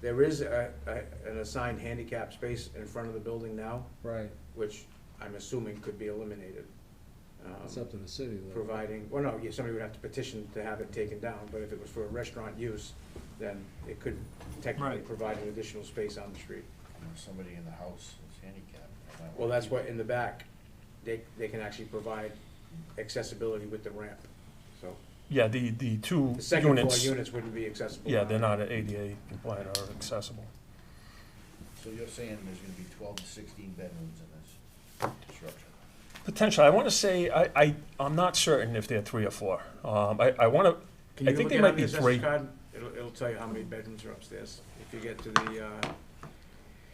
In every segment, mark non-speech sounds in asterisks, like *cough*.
There is a, a, an assigned handicap space in front of the building now, Right, which I'm assuming could be eliminated. Um, it's up to the city though. Providing, well, no, yeah, somebody would have to petition to have it taken down, but if it was for restaurant use, then it could technically Right. provide an additional space on the street. Or somebody in the house is handicapped. I might Well, wanna that's keep what, it. in the back, they, they can actually provide accessibility with the ramp, so. Yeah, the, the two The second floor units, units wouldn't be accessible. yeah, they're not ADA compliant or accessible. So you're saying there's gonna be twelve to sixteen bedrooms in this disruption? Potentially, I want to say, I, I, I'm not certain if they're three or four. Um, I, I want to, Can I you think look they it might up in be the assessor's three. card? It'll, it'll tell you how many bedrooms are upstairs, if you get to the, uh. I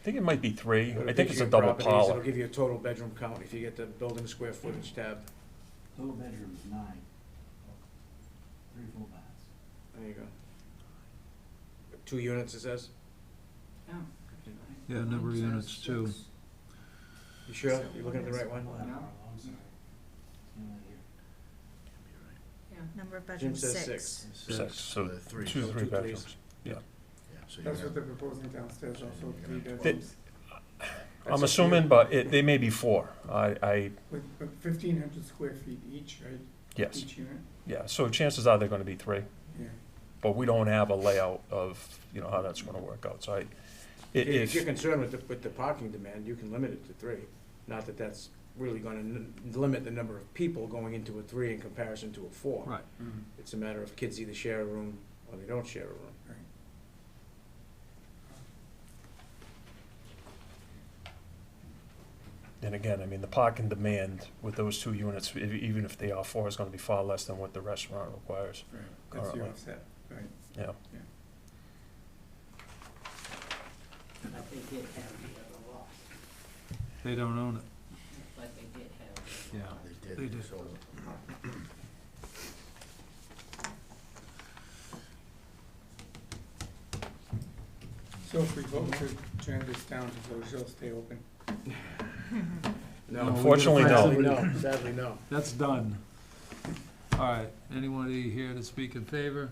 think it might be three, go to I think it's picture a of double properties, It'll parlor. give you a total bedroom count, if you get the building square footage tab, Total bedrooms, nine. Three full baths. there you go. Two units, it says, Yeah, number of units too. you sure, you looking at the right one? Oh, I'm sorry. Yeah, here. Number of Jim bedrooms, says six. Six, so The three. two, so three two, please. bedrooms. Yeah, so you're That's what gonna, they're proposing downstairs, also three Th- bedrooms, I'm assuming, but it, they may be four. I, I, with fifteen hundred square feet each, right? yes, Each unit, yeah, so chances are they're going to be three. yeah. But we don't have a layout of, you know, how that's going to work out, so I, i- If you're if, concerned with the, with the parking demand, you can limit it to three, not that that's really gonna n- limit the number of people going into a three in comparison to a four. Right. It's a matter of kids either share a room or they don't share a room. and again, I mean, the parking demand with those two units, e- even if they are four, is going to be far less than what the restaurant requires. Right, that's your Alright. offset, right. But they did have the other lot, They don't own it. but they did have. Yeah. they did. They did. So So if we vote to turn this down, does Ojai stay open? No, Unfortunately, no. Sadly, no, sadly, no. *laughs* That's done. All right, anybody here to speak in favor?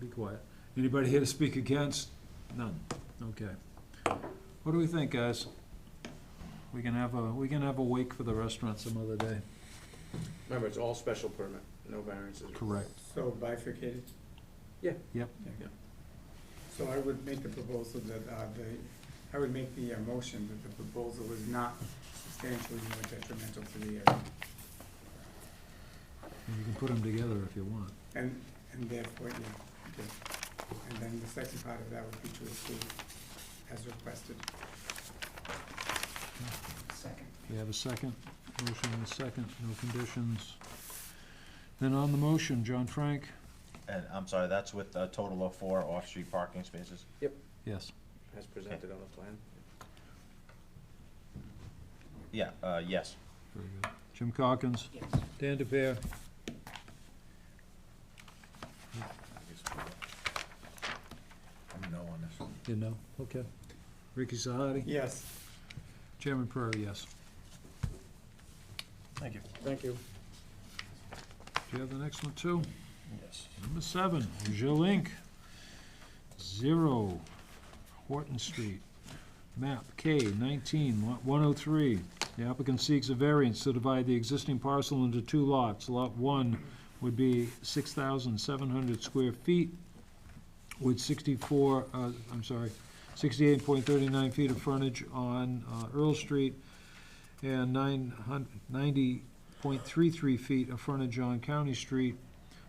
Be quiet. Anybody here to speak against? None, okay. What do we think, guys? We can have a, we can have a wake for the restaurant some other day. Remember, it's all special permit, no variances. Correct. So bifurcated? Yeah. Yep. Yeah. So I would make the proposal that, uh, the, I would make the uh, motion that the proposal was not substantially more detrimental to the area, You can put them together if you want. and, and therefore, yeah, okay. And then the second part of that would be to approve as requested. Second. We have a second, motion and a second, no conditions. Then on the motion, John Frank? And I'm sorry, that's with a total of four off-street parking spaces? Yes. As presented on the plan. Yeah, uh, yes. Very good. Jim Calkins? Yes. Dan DePere? I guess we'll- I'm no on this one. You know, okay. Ricky Sahadi? Yes. Chairman Prairie, yes. Thank you. Thank you. Do you have the next one too? Yes. Number seven, Ojal Inc., zero Horton Street. Map K nineteen, lot one oh three. The applicant seeks a variance to divide the existing parcel into two lots. Lot one would be six thousand seven hundred square feet with sixty-four, uh, I'm sorry, sixty-eight point thirty-nine feet of frontage on, uh, Earl Street and nine hun- ninety point three-three feet of frontage on County Street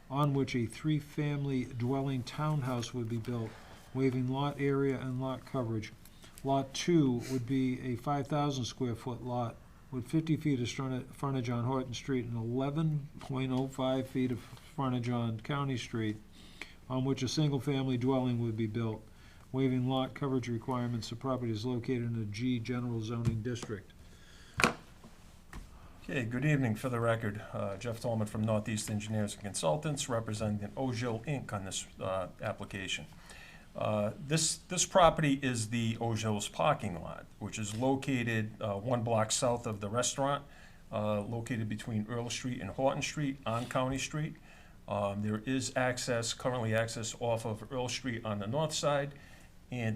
on which a three-family dwelling townhouse would be built, waiving lot area and lot coverage. Lot two would be a five thousand square foot lot with fifty feet of strona- frontage on Horton Street and eleven point oh five feet of frontage on County Street, on which a single-family dwelling would be built, waiving lot coverage requirements. The property is located in a G general zoning district. Okay, good evening. For the record, uh, Jeff Tolman from Northeast Engineers and Consultants, representing Ojil Inc. on this uh, application. Uh, This, this property is the Ojil's parking lot, which is located uh, one block south of the restaurant, uh, located between Earl Street and Horton Street on County Street. Um, There is access, currently access off of Earl Street on the north side, and